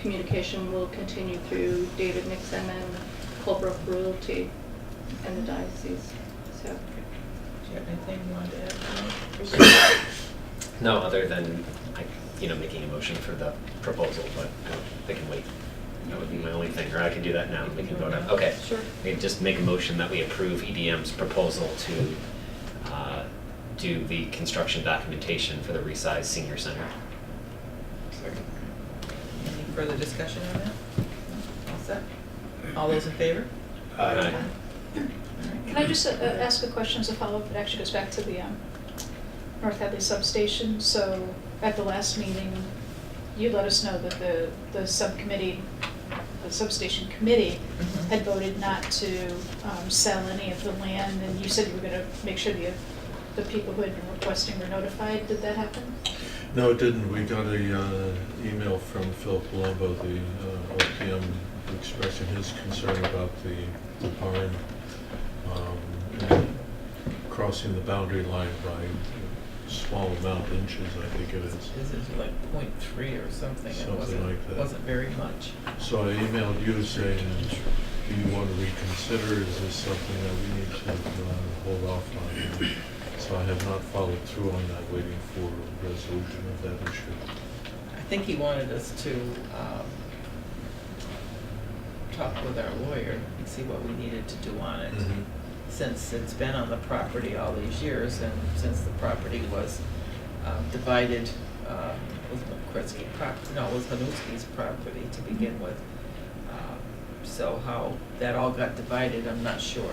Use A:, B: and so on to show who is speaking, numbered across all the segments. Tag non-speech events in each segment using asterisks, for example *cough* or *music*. A: communication will continue through David Nixon and Colebrook Realty and the diocese, so.
B: Do you have anything you wanted to add? Mike?
C: *coughs* No, other than, like, you know, making a motion for the proposal, but uh, they can wait. That would be my only thing, or I can do that now, we can vote on, okay.
B: Sure.
C: We can just make a motion that we approve EDM's proposal to uh, do the construction documentation for the resized senior center.
B: Any further discussion on that? No? All set? All those in favor?
C: Aye.
D: Can I just uh, ask a question as a follow-up? It actually goes back to the um, North Hadley substation. So at the last meeting, you let us know that the, the subcommittee, the substation committee
B: Mhm.
D: had voted not to um, sell any of the land, and you said you were going to make sure the, the people who had been requesting were notified. Did that happen?
E: No, it didn't. We got a uh, email from Phil Palumbo, the uh, OPM, expressing his concern about the the barn um, and crossing the boundary line by a small amount, inches, I think it is.
B: This is like point three or something. It
E: Something like
B: wasn't,
E: that.
B: wasn't very much.
E: So I emailed you saying, do you want to reconsider? Is this something that we need to uh, hold off on? So I have not followed through on that, waiting for a resolution of that issue.
B: I think he wanted us to um, talk with our lawyer and see what we needed to do on it.
E: Mhm.
B: Since it's been on the property all these years and since the property was um, divided uh, with McChrysky prop, no, it was Hanuski's property to begin with. Um, So how that all got divided, I'm not sure.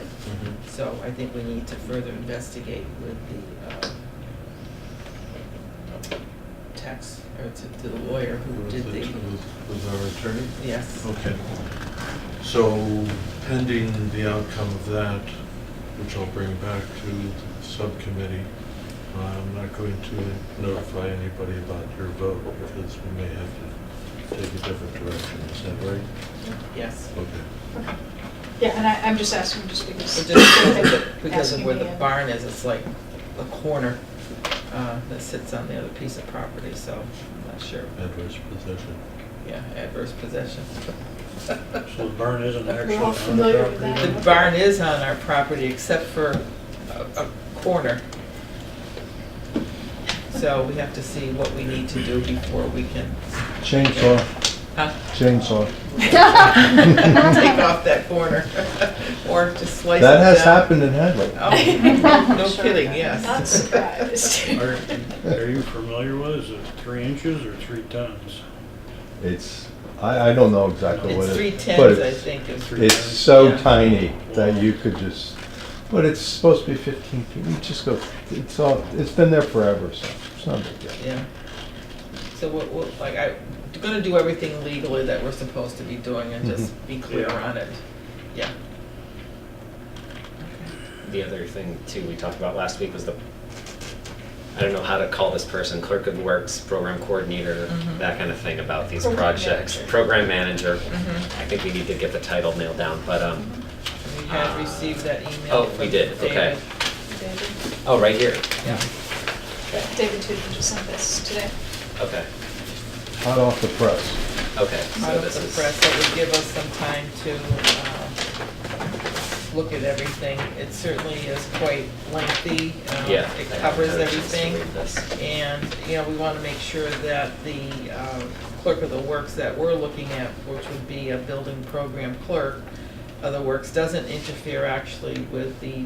B: So I think we need to further investigate with the um, tax, or to to the lawyer who
E: Was
B: did
E: it-
B: the,
E: was- Was our attorney?
B: yes.
E: Okay. So pending the outcome of that, which I'll bring back to the subcommittee, I'm not going to notify anybody about your vote because we may have to take a different direction. Is that right?
B: Yes.
E: Okay.
D: Okay. Yeah, and I, I'm just asking just because.
B: It just-
D: *coughs*
B: Because of
D: Asking
B: where the
D: me and-
B: barn is, it's like a corner uh, that sits on the other piece of property, so I'm not sure.
E: Adverse possession.
B: Yeah, adverse possession.
F: So the barn isn't
D: We're
F: actually
D: all
F: on the
D: familiar with
B: *laughs*
F: property?
B: The barn is on our property except for a, a corner. So we have to see what we need to do before we can,
G: Chainsaw,
D: *laughs*
B: huh?
G: chainsaw.
B: *laughs* take off that corner *laughs* or just slice it
G: That has
B: down.
G: happened in Hadley.
B: Oh, no
D: Sure.
B: kidding, yes.
D: Not surprised.
F: Are are you familiar with, it? is it three inches or three tons?
G: It's, I, I don't know exactly what
B: It's
G: it
B: three
G: is. but
B: tens, I
G: it's-
B: think, is
F: three
G: It's
F: tons.
G: so
B: Yeah.
G: tiny that you could just, but it's supposed to be fifteen feet, you just go, it's all, it's been there forever, so it's not a big deal.
B: Yeah. So we're, we're, like, I'm gonna do everything legally that we're supposed to be doing and just
C: Mm-hmm.
B: be clear
F: Yeah.
B: on it. Yeah.
C: The other thing too we talked about last week was the, I don't know how to call this person, clerk of works, program coordinator,
B: Mhm.
C: that kind of thing about these
D: Mm-hmm. Program
C: projects.
D: manager. Mm-hmm.
C: Program manager.
B: Mhm.
C: I think we need to get the title nailed down, but, um,
B: We had received that email.
C: oh,
B: from
C: we did, okay.
B: David.
D: David,
C: Oh, right here.
B: Yeah.
C: Okay,
D: David Tudor just sent this today.
C: okay,
G: Hot off the press.
C: okay,
B: Out
C: so
B: of
C: this
B: the
C: is.
B: press, that would give us some time to, um, look at everything. It certainly is quite lengthy. um,
C: Yeah.
B: It
C: I haven't
B: covers
C: had a chance to
B: everything.
C: read this.
B: And, you know, we want to make sure that the um, clerk of the works that we're looking at, which would be a building program clerk of the works, doesn't interfere actually with the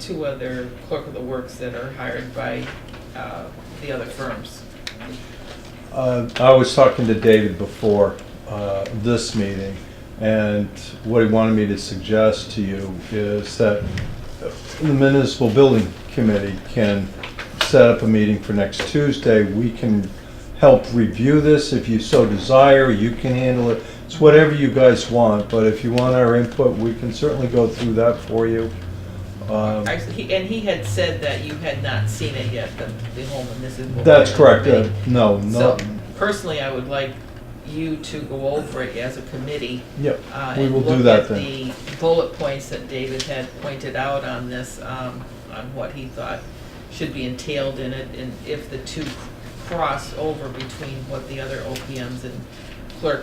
B: two other clerk of the works that are hired by uh, the other firms.
G: Uh, I was talking to David before uh, this meeting, and what he wanted me to suggest to you is that the municipal building committee can set up a meeting for next Tuesday. We can help review this if you so desire, you can handle it. It's whatever you guys want, but if you want our input, we can certainly go through that for you. Um,
B: I- he- And he had said that you had not seen it yet, the the home municipal.
G: That's correct, uh,
B: committee.
G: no,
B: So
G: no,
B: personally, I would like you to go over it as a committee
G: yep,
B: uh,
G: we
B: and
G: will do
B: look
G: that
B: at
G: then.
B: the bullet points that David had pointed out on this, um, on what he thought should be entailed in it, and if the two cross over between what the other OPMs and